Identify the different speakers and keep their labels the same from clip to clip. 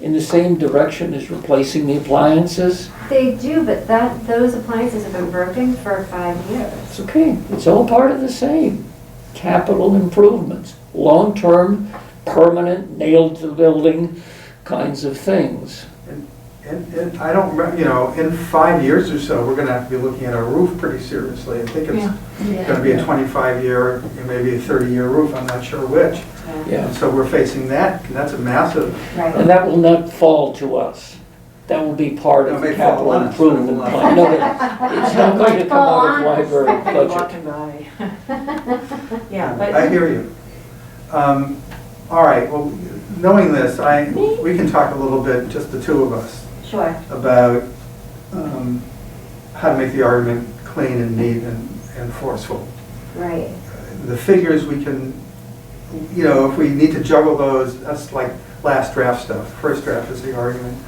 Speaker 1: in the same direction as replacing the appliances?
Speaker 2: They do, but that, those appliances have been broken for five years.
Speaker 1: It's okay, it's all part of the same. Capital improvements, long-term, permanent, nailed to the building kinds of things.
Speaker 3: And, and I don't, remem- you know, in five years or so, we're gonna have to be looking at our roof pretty seriously. I think it's gonna be a twenty-five year, and maybe a thirty-year roof, I'm not sure which.
Speaker 1: Yeah,
Speaker 3: And so we're facing that, and that's a massive,
Speaker 4: Right.
Speaker 1: and that will not fall to us. That will be part of
Speaker 3: It
Speaker 1: the
Speaker 3: may fall
Speaker 1: capital
Speaker 3: on us, but it
Speaker 1: improvement
Speaker 3: will not.
Speaker 1: plan. No, but It's not going to come out of
Speaker 2: Fall on us.
Speaker 1: library budget.
Speaker 4: Walking by. Yeah,
Speaker 3: I
Speaker 4: but,
Speaker 3: hear you. Um, All right, well, knowing this, I, we can talk a little bit, just the two of us,
Speaker 4: sure.
Speaker 3: about um, how to make the argument clean and neat and and forceful.
Speaker 2: Right.
Speaker 3: the figures we can, you know, if we need to juggle those, that's like last draft stuff. First draft is the argument,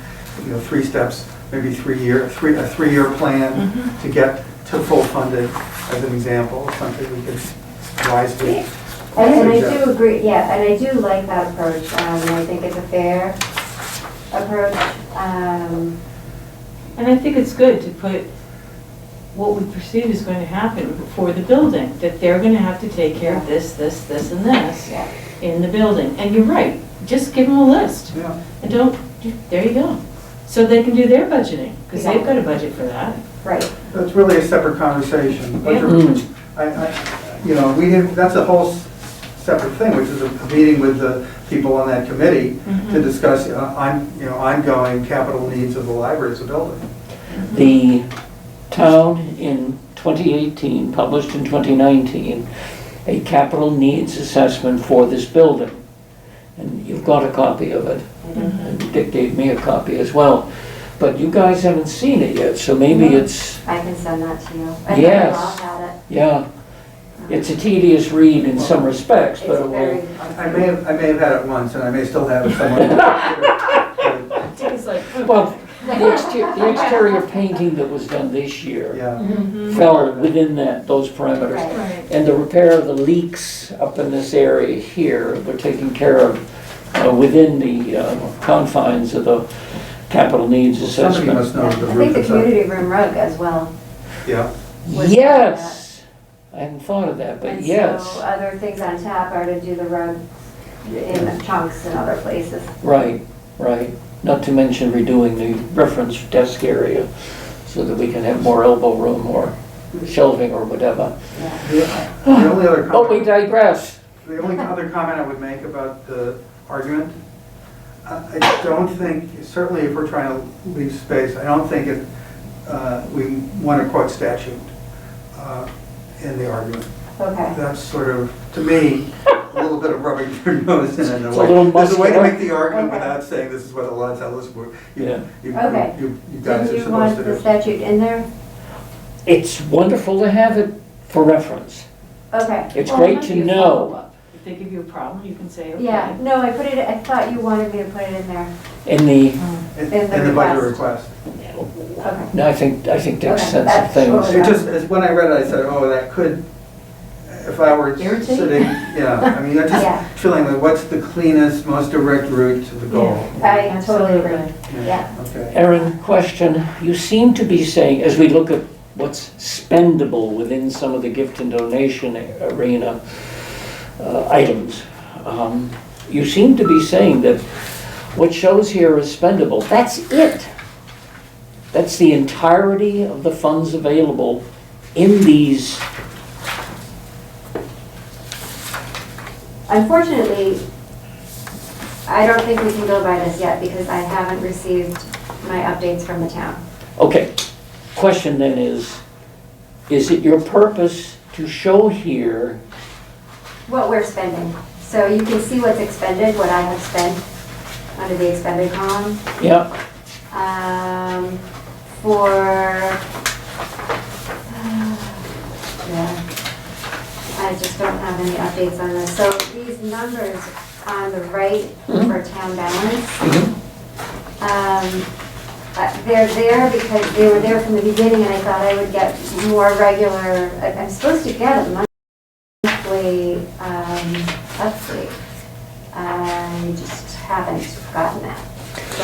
Speaker 3: you know, three steps, maybe three year, three, a three-year plan to get to full funded, as an example, something we could wisely
Speaker 2: And and I
Speaker 3: suggest.
Speaker 2: do agree, yeah, and I do like that approach, um, and I think it's a fair approach. Um,
Speaker 4: And I think it's good to put what we perceive is going to happen for the building, that they're going to have to take care of this, this, this, and this
Speaker 2: Yeah.
Speaker 4: in the building. And you're right, just give them a list
Speaker 3: Yeah,
Speaker 4: and don't, there you go. So they can do their budgeting, because they've got a budget for that.
Speaker 2: Right,
Speaker 3: that's really a separate conversation. But
Speaker 4: Yeah.
Speaker 3: you're-
Speaker 1: Mm,
Speaker 3: I, I, you know, we didn't, that's a whole s- separate thing, which is a a meeting with the people on that committee
Speaker 2: Mm-hmm.
Speaker 3: to discuss, uh, on, you know, ongoing capital needs of the library as a building.
Speaker 1: The town in 2018, published in 2019, a capital needs assessment for this building. And you've got a copy of it.
Speaker 2: Mm-hmm.
Speaker 1: And Dick gave me a copy as well. But you guys haven't seen it yet, so maybe
Speaker 2: No.
Speaker 1: it's,
Speaker 2: I can send that to you. I think
Speaker 1: Yes.
Speaker 2: I'll have it.
Speaker 1: yeah, it's a tedious read in some respects,
Speaker 2: It's
Speaker 1: but it will.
Speaker 2: very.
Speaker 3: I I may have, I may have had it once, and I may still have it somewhere. But,
Speaker 4: Dick is like, "Oh."
Speaker 1: Well, the exterior, the exterior painting that was done this year
Speaker 3: Yeah,
Speaker 4: Mhm.
Speaker 1: fell within that, those parameters.
Speaker 2: Right.
Speaker 4: Right.
Speaker 1: And the repair of the leaks up in this area here were taken care of uh, within the uh, confines of the capital needs
Speaker 3: somebody
Speaker 1: assessment.
Speaker 3: must
Speaker 2: Yeah,
Speaker 3: know
Speaker 2: I
Speaker 3: the roof
Speaker 2: think the
Speaker 3: is up.
Speaker 2: community room rug as well.
Speaker 3: Yeah,
Speaker 2: must-
Speaker 1: Yes! I hadn't thought of that, but
Speaker 2: And so
Speaker 1: Uh,
Speaker 4: uh,
Speaker 1: yes,
Speaker 2: other things on tap are to do the rug in chunks in other places.
Speaker 1: right, right. Not to mention redoing the reference desk area so that we can have more elbow room or shelving or whatever.
Speaker 3: the the only other
Speaker 2: Oh,
Speaker 1: But we
Speaker 3: comment,
Speaker 1: digress.
Speaker 3: the only other comment I would make about the argument, I I don't think, certainly if we're trying to leave space, I don't think it, uh, we want to quote statute uh, in the argument.
Speaker 2: Okay.
Speaker 3: That's sort of, to me, a little bit of rubbing your nose in in a
Speaker 1: It's a
Speaker 3: way.
Speaker 1: little
Speaker 3: There's a way to
Speaker 1: muscular.
Speaker 3: make the argument
Speaker 2: Okay.
Speaker 3: without saying this is what the law tells us, we're- you,
Speaker 1: Yeah.
Speaker 3: you,
Speaker 2: Okay.
Speaker 3: you you guys
Speaker 2: Did
Speaker 3: are
Speaker 2: you want
Speaker 3: supposed to
Speaker 2: the
Speaker 3: do.
Speaker 2: statute in there?
Speaker 1: It's wonderful to have it for reference.
Speaker 2: Okay.
Speaker 1: It's
Speaker 4: Well,
Speaker 1: great
Speaker 4: it
Speaker 1: to
Speaker 4: might be a
Speaker 1: know.
Speaker 4: follow-up. If they give you a problem, you can say, okay.
Speaker 2: Yeah, no, I put it, I thought you wanted me to put it in there.
Speaker 1: In the
Speaker 3: In
Speaker 2: in the
Speaker 3: in the budget request.
Speaker 2: Okay.
Speaker 1: No, I think, I think Dick
Speaker 2: Okay,
Speaker 1: said some
Speaker 2: that's
Speaker 1: things.
Speaker 2: totally-
Speaker 3: It just, as when I read it, I said, oh, that could, if I were
Speaker 4: Irritate?
Speaker 3: sitting, yeah, I mean, I'm
Speaker 2: Yeah.
Speaker 3: just feeling like, what's the cleanest, most direct route to the goal?
Speaker 2: I totally agree.
Speaker 4: Absolutely.
Speaker 2: yeah.
Speaker 3: Okay.
Speaker 1: Erin, question, you seem to be saying, as we look at what's spendable within some of the gift and donation arena uh, items, um, you seem to be saying that what shows here is spendable, that's it. That's the entirety of the funds available in these,
Speaker 2: Unfortunately, I don't think we can go by this yet because I haven't received my updates from the town.
Speaker 1: okay. Question then is, is it your purpose to show here
Speaker 2: What we're spending. So you can see what's expended, what I have spent under the expended column.
Speaker 1: Yeah,
Speaker 2: Um, for, yeah, I just don't have any updates on this. So these numbers on the right for town balance,
Speaker 1: mm-hmm.
Speaker 2: um, uh, they're there because they were there from the beginning and I thought I would get more regular, I- I'm supposed to get a monthly, um, update. I just haven't gotten that.